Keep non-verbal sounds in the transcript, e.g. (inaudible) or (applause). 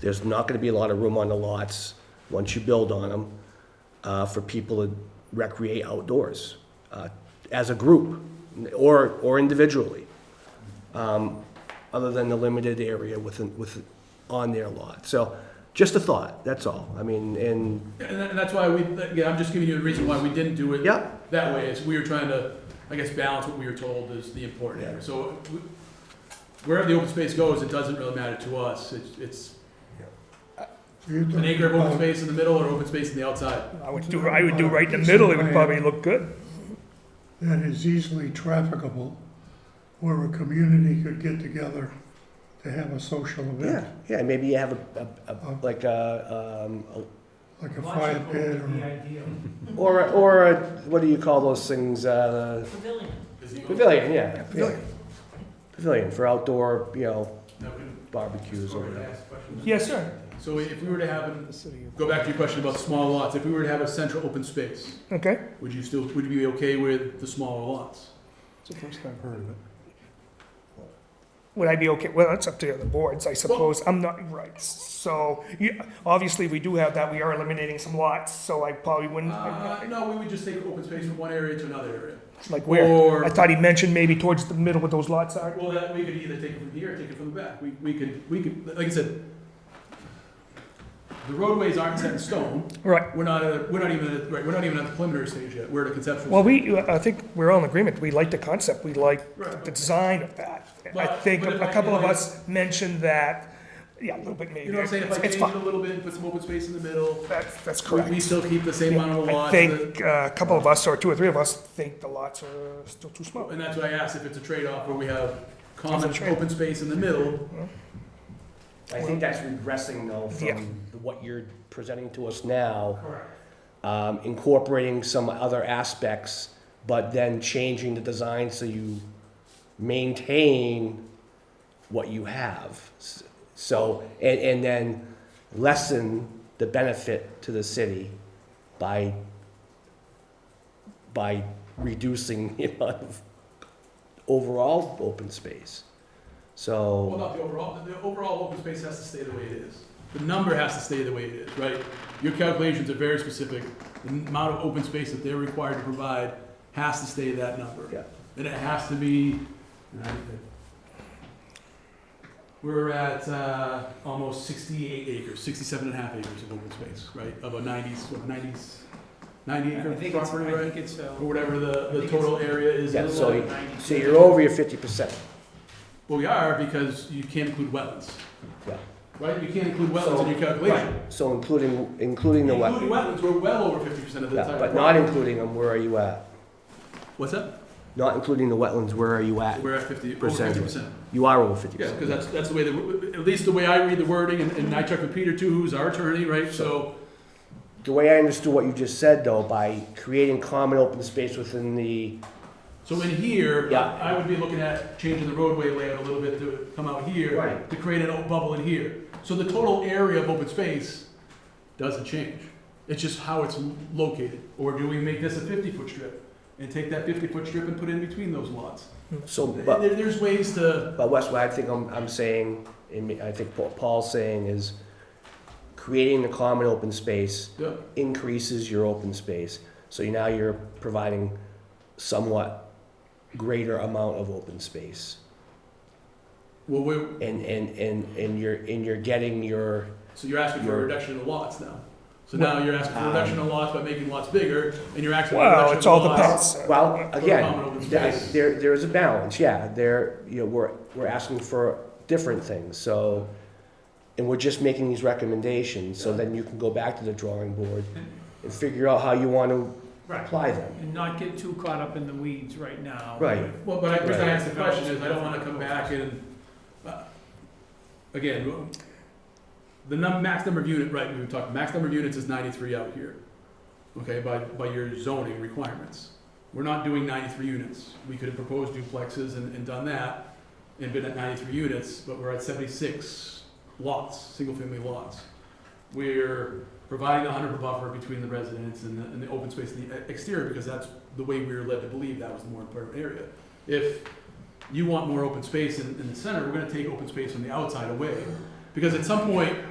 There's not gonna be a lot of room on the lots, once you build on them, uh, for people to recreate outdoors, uh, as a group, or, or individually um, other than the limited area within, with, on their lot. So just a thought, that's all. I mean, and, And that- and that's why we, again, I'm just giving you a reason why we didn't do it yeah, that way, is we were trying to, I guess, balance what we were told is the important Yeah. area. So we- wherever the open space goes, it doesn't really matter to us. It's- It's an acre of open space in the middle or open space in the outside. I would do, I would do right in the middle, it would probably look good. that is easily trafficable, where a community could get together to have a social yeah, Oh. event, yeah, maybe you have a, a- a, like a, um, a- like a fire pit or, or, a- or, a- what do you call those things, uh, Pavilion. pavilion, yeah. Pavilion. Pavilion for outdoor, you know, Now, can- barbecues or sorry, I whatever. asked a question. Yes, sir. So if we were to have, an- go back to your question about small lots, if we were to have a central open space, Okay. would you still, would you be okay with the smaller lots? It's the first I've heard of it. Would I be okay, well, that's up to the other boards, I suppose, I'm not, right, so, you, obviously, we do have that, we are eliminating some lots, so I probably wouldn't, Uh, no, we would just take open space from one area to another area. like where? Or- I thought he mentioned maybe towards the middle what those lots are. Well, that, we could either take it from here or take it from the back. We, we could, we could, like I said, the roadways aren't set in stone. Right, We're not, at- we're not even, at- right, we're not even at the preliminary stage yet. We're at a conceptual. well, we, I think we're all in agreement, we like the concept, we like Right. the design of that. I But- think but if I could, a stage. I think a couple of like- us mentioned that, yeah, a little bit maybe. You know what I'm saying? If I It's- change It's it fine, a little bit, put some open space in the middle, that's, that's we, correct. we still keep the same amount of I lots. think uh, a couple of us, or two or three of us, think the lots are still too that- small. And that's why I asked if it's a trade-off where we have common It's a trade- open space in the middle. I think that's regressing though Yeah. from what you're presenting to us now. Correct. um, incorporating some other aspects, but then changing the design so you maintain what you have. S- So, and, and then lessen the benefit to the city by, by reducing (laughs) the amount of overall open space. Well, So, not the overall, the overall open space has to stay the way it is. The number has to stay the way it is, right? Your calculations are very specific. The amount of open space that they're required to provide has to stay that number. Yeah. And it has to be, we're at, uh, almost sixty-eight acres, sixty-seven and a half acres of open space, right? Of a nineties, what, nineties, ninety acre property, right? it's, uh, Or whatever the, I the think total area is. yeah, in the so, lot. you- so you're over your fifty percent. Well, we are because you can't include wetlands. Yeah. Right, you can't include wetlands in your calculation. So including, including the Including wetland. wetlands, we're well over fifty percent of the Yeah, entire. But not property. including them, where are you at? What's that? Not including the wetlands, where are you at? We're at fifty, over Percentage. fifty percent. You are over fifty Yeah, percent. because that's, that's the way, the at least the way I read the wording, and, and I checked with Peter too, who's our attorney, right? So, The way I understood what you just said, though, by creating common open space within the, so in here, Yeah. I would be looking at changing the roadway layout a little bit to come out here, Right. to create an open bubble in here. So the total area of open space doesn't change. It's just how it's located. Or do we make this a fifty-foot strip and take that fifty-foot strip and put it in between those lots? so, but, There, there's ways to, but Wes, what I think I'm, I'm saying, and me- I think what Paul's saying is creating the common open space yeah, increases your open space. So you- now you're providing somewhat greater amount of open space. well, we And, and, and, and you're, and you're getting your, so you're asking for a You're- um, reduction of lots now. So now you're asking for a reduction of lots by making lots bigger, and you're asking for a Well, reduction it's of all the lots. balance. Well, common again, open th- space. there, there is a balance, yeah, there, you know, we're, we're asking for different things, so, and we're just making these recommendations, so then you can go back to the drawing board and figure out how you want to Right, apply them. and not get too caught up in the weeds right now. Right. Well, but I, the reason I Right. asked the question is, I don't wanna come back and, uh, again, w- the num, max number of unit, right, we were talking, max number of units is ninety-three out here, okay, by, by your zoning requirements. We're not doing ninety-three units, we could have proposed duplexes and, and done that, and been at ninety-three units, but we're at seventy-six lots, single-family lots. We're providing a hundred buffer between the residents and the, and the open space in the e- exterior, because that's the way we were led to believe that was the more important area. If you want more open space in, in the center, we're gonna take open space from the outside away. Because at some point,